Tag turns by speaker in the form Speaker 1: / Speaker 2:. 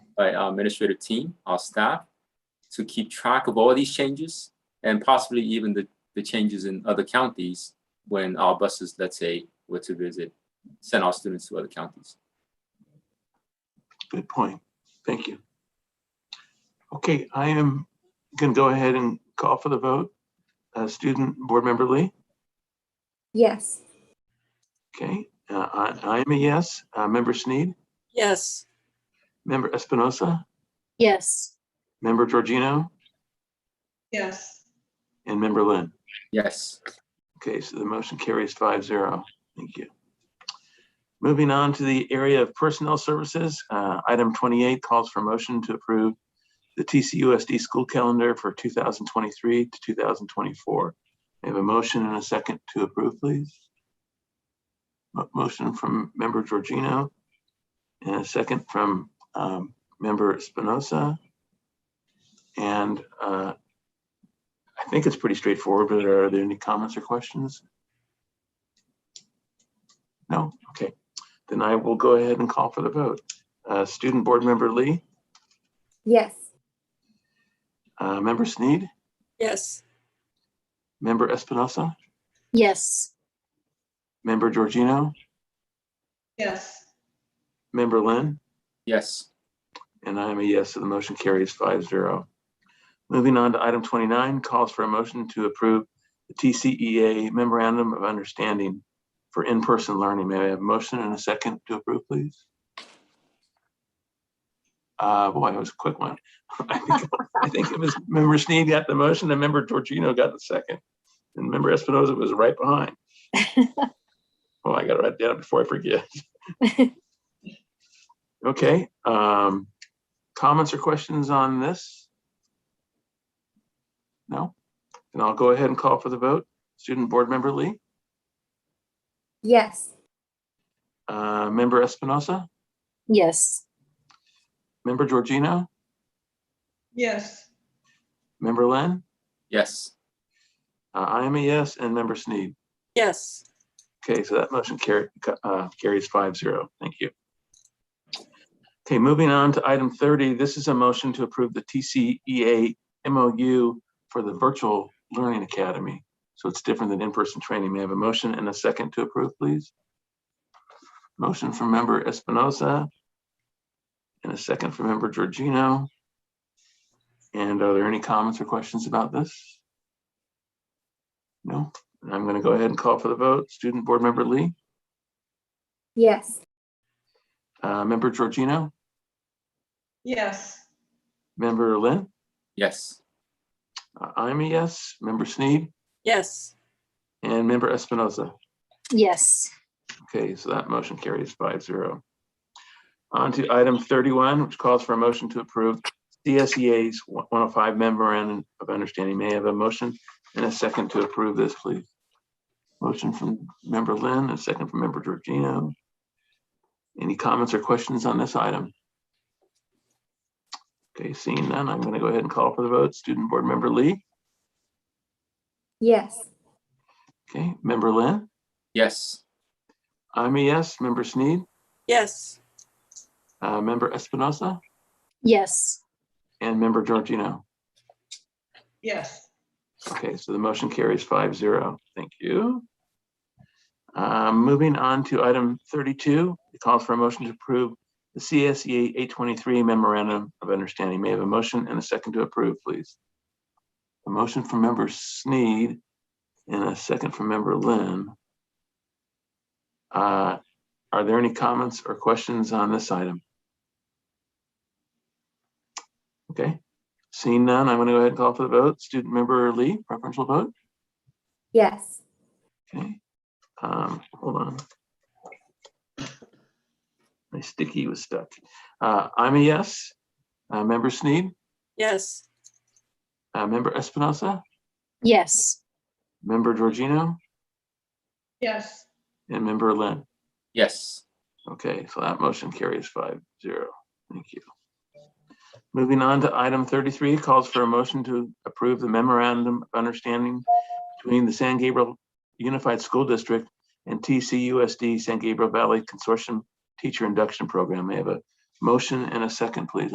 Speaker 1: by our administrative team, our staff, to keep track of all these changes and possibly even the, the changes in other counties when our buses, let's say, were to visit, send our students to other counties.
Speaker 2: Good point. Thank you. Okay, I am going to go ahead and call for the vote. Uh, Student Board Member Lee,
Speaker 3: Yes.
Speaker 2: okay, uh, I I am a yes. Uh, Member Sneed,
Speaker 4: Yes.
Speaker 2: Member Espinosa,
Speaker 3: Yes.
Speaker 2: Member Georgino,
Speaker 4: Yes.
Speaker 2: and Member Lynn.
Speaker 1: Yes,
Speaker 2: Okay, so the motion carries five zero. Thank you. Moving on to the area of personnel services, uh, item twenty-eight calls for motion to approve the TCUSD school calendar for two thousand twenty-three to two thousand twenty-four. I have a motion and a second to approve, please. Mo- Motion from member Georgino and a second from um, member Espinosa. And uh, I think it's pretty straightforward, but are there any comments or questions? No? Okay. Then I will go ahead and call for the vote. Uh, Student Board Member Lee,
Speaker 3: Yes.
Speaker 2: uh, Member Sneed,
Speaker 4: Yes.
Speaker 2: Member Espinosa,
Speaker 3: Yes.
Speaker 2: Member Georgino,
Speaker 4: Yes.
Speaker 2: Member Lynn,
Speaker 1: yes,
Speaker 2: and I am a yes, so the motion carries five zero. Moving on to item twenty-nine, calls for a motion to approve the TCEA Memorandum of Understanding for in-person learning. May I have a motion and a second to approve, please? Uh, boy, that was a quick one. I think- I think it was member Sneed got the motion and member Georgino got the second. And member Espinoza was right behind. Oh, I gotta write that down before I forget. Okay, um, comments or questions on this? No? Then I'll go ahead and call for the vote. Student Board Member Lee,
Speaker 3: Yes.
Speaker 2: uh, Member Espinosa,
Speaker 3: Yes.
Speaker 2: Member Georgino,
Speaker 4: Yes.
Speaker 2: Member Len,
Speaker 1: yes,
Speaker 2: uh, I am a yes, and Member Sneed.
Speaker 4: Yes.
Speaker 2: Okay, so that motion carry, uh, carries five zero. Thank you. Okay, moving on to item thirty, this is a motion to approve the E TCEA MOU for the Virtual Learning Academy. So it's different than in-person training. May I have a motion and a second to approve, please? Motion from member Espinoza and a second from member Georgino. And are there any comments or questions about this? No? And I'm going to go ahead and call for the vote. Student Board Member Lee,
Speaker 3: Yes.
Speaker 2: uh, Member Georgino,
Speaker 4: Yes.
Speaker 2: Member Lynn,
Speaker 1: yes,
Speaker 2: uh, I'm a yes, Member Sneed,
Speaker 4: Yes.
Speaker 2: and Member Espinoza.
Speaker 3: Yes.
Speaker 2: Okay, so that motion carries five zero. On to item thirty-one, which calls for a motion to approve CSEA's one oh five memorandum of understanding. May I have a motion and a second to approve this, please? Motion from Member Lynn, a second from Member Georgino. Any comments or questions on this item? Okay, seeing none, I'm going to go ahead and call for the vote. Student Board Member Lee,
Speaker 3: Yes.
Speaker 2: okay, Member Lynn,
Speaker 1: yes,
Speaker 2: I'm a yes, Member Sneed,
Speaker 4: Yes.
Speaker 2: uh, Member Espinosa,
Speaker 3: Yes.
Speaker 2: and Member Georgino.
Speaker 4: Yes.
Speaker 2: Okay, so the motion carries five zero. Thank you. Um, Moving on to item thirty-two, it calls for a motion to approve the CSEA eight twenty-three memorandum of understanding. May I have a motion and a second to approve, please? A motion from member Sneed and a second from member Lynn. Uh, Are there any comments or questions on this item? Okay, Seeing none, I'm going to go ahead and call for the vote. Student member Lee, preferential vote.
Speaker 3: Yes.
Speaker 2: Okay. Um, hold on. My sticky was stuck. Uh, I'm a yes. Uh, member Sneed,
Speaker 4: Yes.
Speaker 2: uh, member Espinosa,
Speaker 3: Yes.
Speaker 2: member Georgino,
Speaker 4: Yes.
Speaker 2: and member Lynn.
Speaker 1: yes,
Speaker 2: Okay, so that motion carries five zero. Thank you. Moving on to item thirty-three, calls for a motion to approve the memorandum of understanding between the San Gabriel Unified School District and TCUSD San Gabriel Valley Consortium Teacher Induction Program. May I have a motion and a second, please?